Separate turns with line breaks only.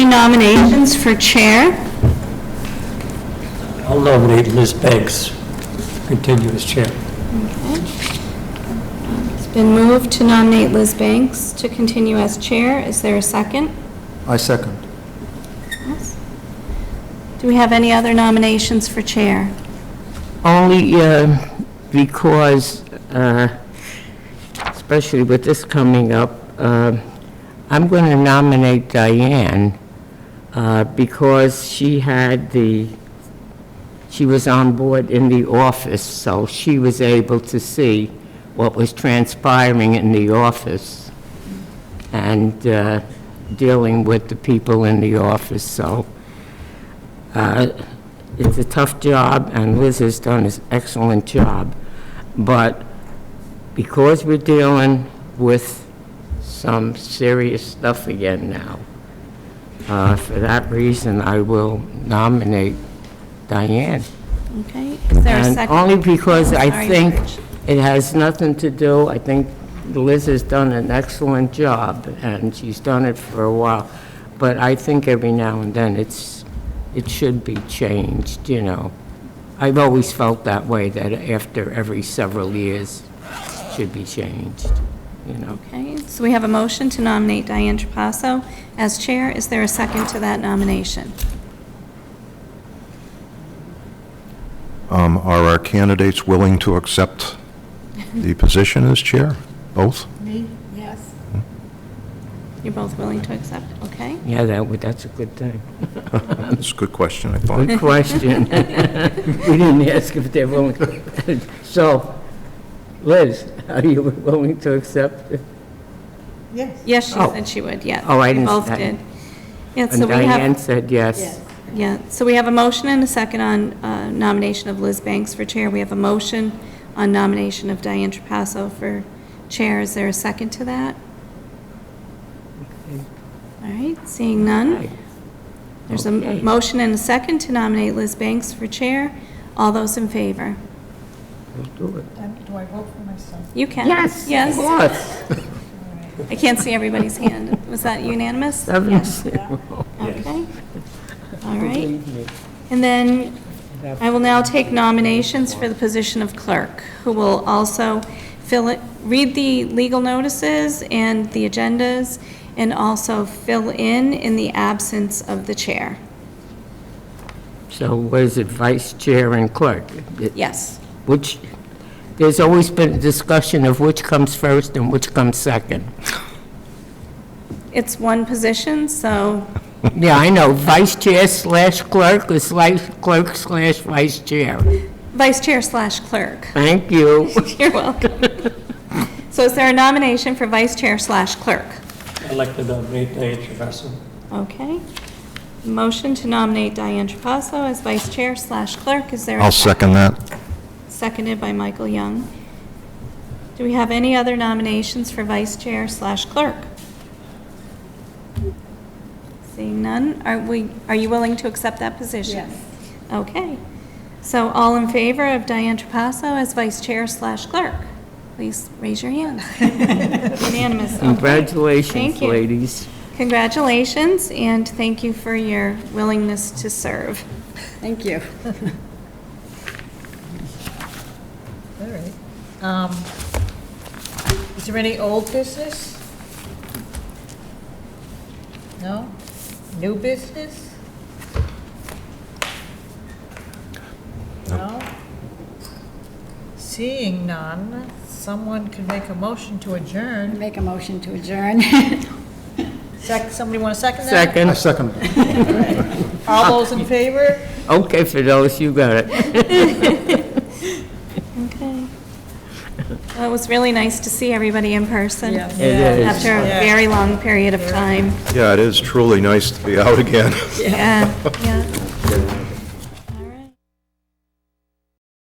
nominations for chair?
I'll nominate Liz Banks, continue as chair.
It's been moved to nominate Liz Banks to continue as chair. Is there a second?
I second.
Yes. Do we have any other nominations for chair?
Only uh, because, uh, especially with this coming up, uh, I'm going to nominate Diane uh, because she had the, she was on board in the office, so she was able to see what was transpiring in the office and uh, dealing with the people in the office, so uh, It's a tough job, and Liz has done an excellent job. But because we're dealing with some serious stuff again now, uh, for that reason, I will nominate Diane.
Okay, is there a
And
second?
only because I
Sorry,
think
Rich.
it has nothing to do, I think Liz has done an excellent job, and she's done it for a while, but I think every now and then it's, it should be changed, you know. I've always felt that way, that after every several years, it should be changed, you know.
Okay, so we have a motion to nominate Diane Trapasso as chair. Is there a second to that nomination?
Um, Are our candidates willing to accept the position as chair? Both?
You're both willing to accept, okay?
Yeah, that would, that's a good thing.
That's a good question, I thought.
Good question. We didn't ask if they're willing. So, Liz, are you willing to accept? it?
Yes, she
Oh.
said she would, yeah.
Oh, I
We
didn't-
Both
I-
did. Yeah, so
And
we
Diane
have,
said yes.
yeah, so we have a motion and a second on uh, nomination of Liz Banks for chair. We have a motion on nomination of Diane Trapasso for chair. Is there a second to that? All right, seeing none. There's a
Okay.
motion and a second to nominate Liz Banks for chair. All those in favor?
We'll do it.
Um, Do I vote for myself?
You can.
Yes, of
Yes.
course.
I can't see everybody's hand. Was that unanimous?
Seven zero.
Okay. All right. And then I will now take nominations for the position of clerk, who will also fill it, read the legal notices and the agendas, and also fill in in the absence of the chair.
So was it vice chair and clerk? It-
Yes.
Which, there's always been discussion of which comes first and which comes second.
It's one position, so,
Yeah, I know, vice chair slash clerk or slash clerk slash vice chair.
vice chair slash clerk.
Thank you.
You're welcome. So is there a nomination for vice chair slash clerk?
I'd like to nominate Diane Trapasso.
Okay. Motion to nominate Diane Trapasso as vice chair slash clerk. Is there? a
I'll second that.
Seconded by Michael Young. Do we have any other nominations for vice chair slash clerk? Seeing none, are we, are you willing to accept that position? Yes. Okay. So all in favor of Diane Trapasso as vice chair slash clerk? Please raise your hand. Unanimous. okay.
Congratulations,
Thank you.
ladies.
Congratulations, and thank you for your willingness to serve.
Thank you.
All right. Um, Is there any old business? No? New business? No? Seeing none, someone could make a motion to adjourn.
Make a motion to adjourn.
Sec, somebody want to second that?
Second,
second.
All those in favor?
okay for those, you got it.
Okay. Well, it was really nice to see everybody in person.
Yes.
It is.
After a very long period of time.
Yeah, it is truly nice to be out again.
Yeah, yeah.